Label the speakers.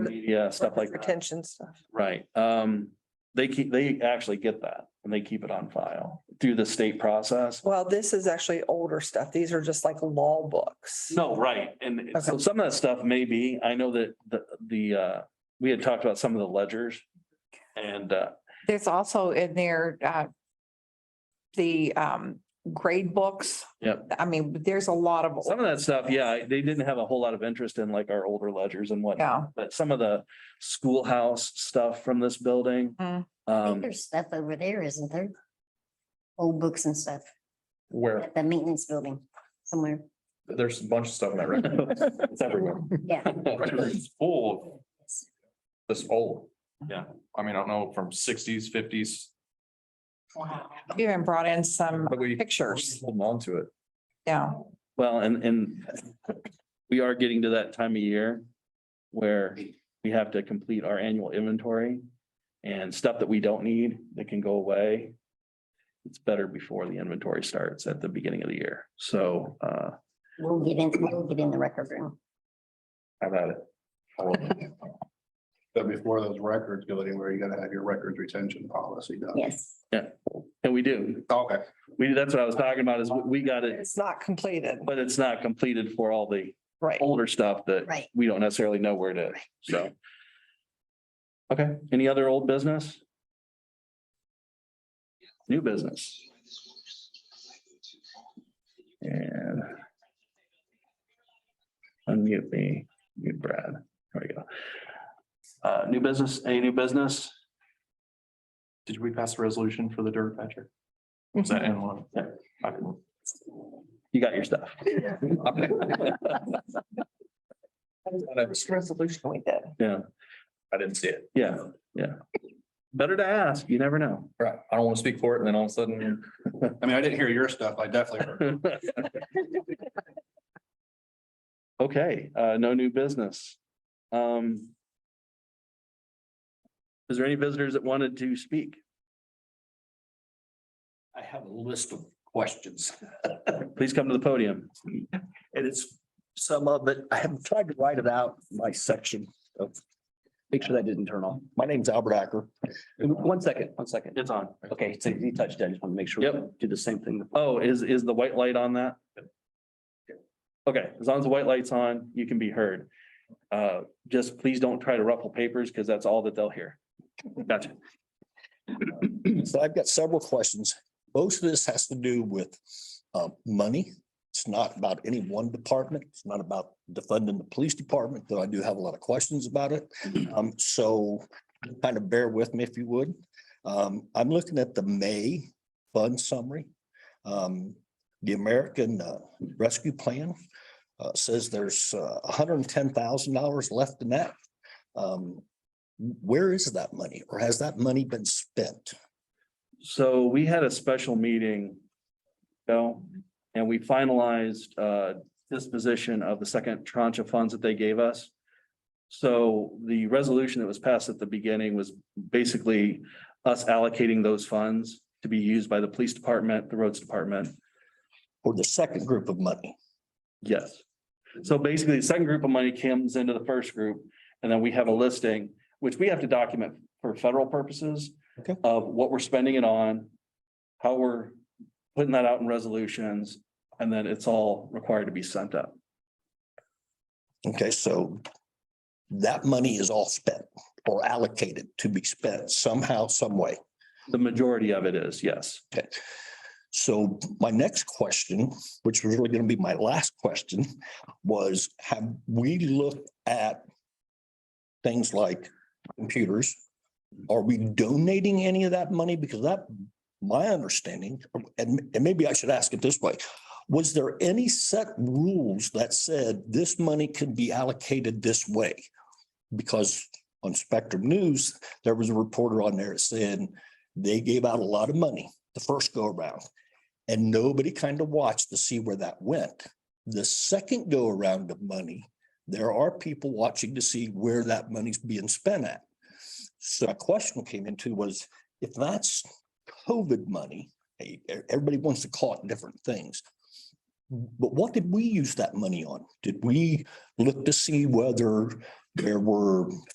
Speaker 1: yeah, stuff like that.
Speaker 2: Retention stuff.
Speaker 1: Right, um, they keep, they actually get that and they keep it on file through the state process.
Speaker 2: Well, this is actually older stuff. These are just like law books.
Speaker 1: No, right, and so
Speaker 2: Okay.
Speaker 1: some of that stuff may be, I know that the, the, uh, we had talked about some of the ledgers. And, uh,
Speaker 3: There's also in there, uh, the, um, grade books.
Speaker 1: Yep.
Speaker 3: I mean, there's a lot of,
Speaker 1: some of that stuff, yeah, they didn't have a whole lot of interest in like our older ledgers and whatnot,
Speaker 3: yeah,
Speaker 1: but some of the schoolhouse stuff from this building.
Speaker 3: Mm.
Speaker 4: I think
Speaker 1: Um,
Speaker 4: There's stuff over there, isn't there? Old books and stuff
Speaker 5: Where
Speaker 4: at the maintenance building somewhere.
Speaker 5: there's a bunch of stuff in that record.
Speaker 1: it's everywhere.
Speaker 4: Yeah.
Speaker 5: It's full of
Speaker 4: Yes.
Speaker 5: this old.
Speaker 1: Yeah.
Speaker 5: I mean, I don't know, from sixties, fifties,
Speaker 4: Wow.
Speaker 3: we even brought in some
Speaker 5: but we.
Speaker 3: pictures,
Speaker 5: Holding on to it.
Speaker 3: yeah.
Speaker 1: Well, and, and we are getting to that time of year where we have to complete our annual inventory and stuff that we don't need that can go away. It's better before the inventory starts at the beginning of the year. So, uh,
Speaker 4: We'll get in, we'll get in the record room.
Speaker 1: I've had it.
Speaker 6: But before those records go anywhere, you gotta have your records retention policy done.
Speaker 4: Yes.
Speaker 1: And we do.
Speaker 6: Okay.
Speaker 1: We, that's what I was talking about is we- we got it,
Speaker 2: It's not completed,
Speaker 1: but it's not completed for all the
Speaker 2: right?
Speaker 1: older stuff that
Speaker 4: Right.
Speaker 1: we don't necessarily know where it is. So. Okay, any other old business? New business? And. Unmute me, mute Brad. There we go. Uh, new business, any new business?
Speaker 5: Did we pass a resolution for the dirt patcher? Was that in one?
Speaker 1: Yeah.
Speaker 5: I couldn't-
Speaker 1: You got your stuff.
Speaker 3: Resolution we did.
Speaker 1: Yeah,
Speaker 5: I didn't see it.
Speaker 1: yeah, yeah. Better to ask, you never know.
Speaker 5: Right. I don't want to speak for it and then all of a sudden.
Speaker 6: I mean, I didn't hear your stuff. I definitely heard.
Speaker 1: Okay, uh, no new business. Um. Is there any visitors that wanted to speak?
Speaker 7: I have a list of questions,
Speaker 1: Please come to the podium.
Speaker 7: and it's some of it, I have tried to write it out, in my section of. Make sure that didn't turn off. My name's Albert Acker. One second, one second.
Speaker 1: It's on.
Speaker 7: Okay, so you touched that. I just want to make sure. we
Speaker 1: Yep.
Speaker 7: Do the same thing.
Speaker 1: Oh, is, is the white light on that? Okay, as long as the white light's on, you can be heard. Uh, just please don't try to ruffle papers because that's all that they'll hear. Gotcha.
Speaker 7: So I've got several questions. Most of this has to do with uh, money. It's not about any one department. It's not about defunding the police department, though I do have a lot of questions about it. Um, So kind of bear with me if you would. Um, I'm looking at the May fund summary. Um, The American uh, Rescue Plan uh, says there's hundred and ten thousand dollars left in that. Um, Where is that money or has that money been spent?
Speaker 1: So we had a special meeting. Bill, and we finalized uh disposition of the second tranche of funds that they gave us. So the resolution that was passed at the beginning was basically us allocating those funds to be used by the police department, the roads department.
Speaker 7: Or the second group of money.
Speaker 1: Yes. So basically, the second group of money comes into the first group, and then we have a listing, which we have to document for federal purposes.
Speaker 7: Okay.
Speaker 1: Of what we're spending it on, how we're putting that out in resolutions, and then it's all required to be sent up.
Speaker 7: Okay, so that money is all spent or allocated to be spent somehow, some way.
Speaker 1: The majority of it is, yes.
Speaker 7: Okay. So my next question, which was really going to be my last question, was have we looked at things like computers? Are we donating any of that money? Because that, my understanding, and, and maybe I should ask it this way. Was there any set rules that said this money could be allocated this way? Because on Spectrum News, there was a reporter on there saying they gave out a lot of money the first go around. And nobody kind of watched to see where that went. The second go around of money, there are people watching to see where that money's being spent at. So a question came into was, if that's COVID money, eh, eh, everybody wants to call it different things. But what did we use that money on? Did we look to see whether there were